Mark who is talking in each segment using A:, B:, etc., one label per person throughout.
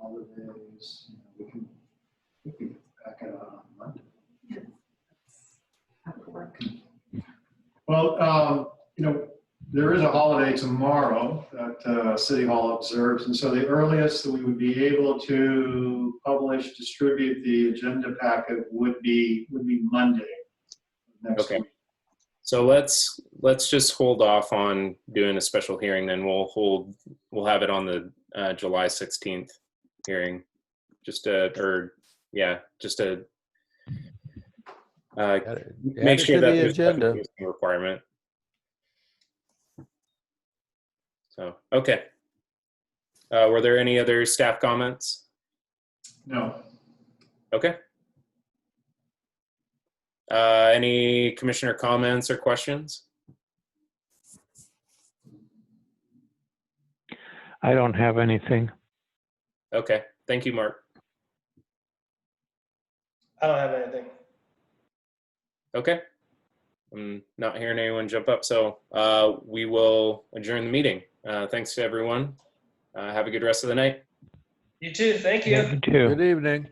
A: holidays, you know, we can, we can get back at it on Monday. Well, um, you know, there is a holiday tomorrow that uh, City Hall observes, and so the earliest that we would be able to publish, distribute the agenda packet would be, would be Monday. next
B: Okay.
A: week.
B: So let's, let's just hold off on doing a special hearing, then we'll hold, we'll have it on the uh, July 16th hearing. Just a, or, yeah, just a, uh,
C: Add it- add it
B: make sure
C: to
B: that
C: the
B: there's a
C: agenda.
B: posting requirement. So, okay. Uh, Were there any other staff comments?
A: No,
B: Okay. Uh, any commissioner comments or questions?
D: I don't have anything.
B: Okay, thank you, Mark.
E: I don't have anything.
B: Okay. I'm not hearing anyone jump up, so uh, we will adjourn the meeting. Uh, thanks to everyone. Uh, have a good rest of the night.
E: You too. Thank you.
D: too.
C: Good evening.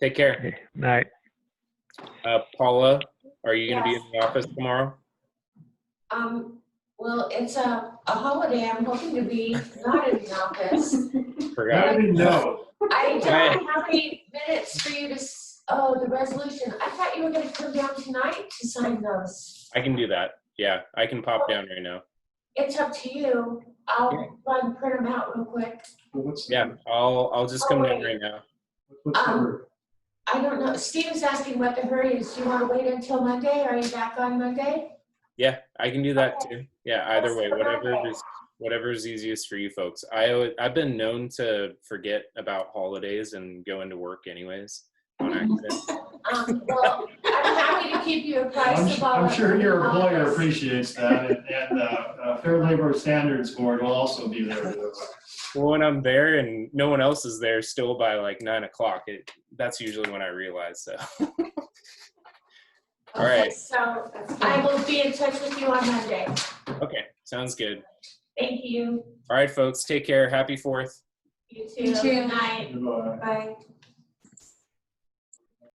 B: Take care.
D: Okay, Night.
B: Uh, Paula, are you going to
F: Yes.
B: be in the office tomorrow?
F: Um, well, it's a, a holiday. I'm hoping to be not in the office.
A: I
B: Forgot.
A: didn't know.
F: I
B: Right.
F: don't have any minutes for you to, s- oh, the resolution. I thought you were gonna come down tonight to sign those.
B: I can do that. Yeah, I can pop down right now.
F: It's up to you.
B: Yeah.
F: I'll run, print them out real quick.
A: Well, What's,
B: Yeah, I'll I'll just come down right now.
A: what's the word?
F: I don't know. Steve is asking what the hurry is. Do you wanna wait until Monday? Are you back on Monday?
B: Yeah, I can do that too. Yeah, either way, whatever is whatever is easiest for you folks. I al- I've been known to forget about holidays and go into work anyways on accident.
F: Um, well, I'm happy to keep you
A: I'm
F: apprised
A: su-
F: of all.
A: I'm sure your
F: upcoming
A: employer
F: holidays.
A: appreciates that, and- and uh, uh, Fair Labor Standards Board will also be there. to-
B: Well, when I'm there and no one else is there still by like nine o'clock, it, that's usually when I realize. So, All
F: Okay,
B: right.
F: So I will be in touch with you on Monday.
B: okay, sounds good.
F: Thank you.
B: All right, folks, take care. Happy fourth.
F: You
G: You too.
F: too. Good night.
A: Goodbye.
F: Bye.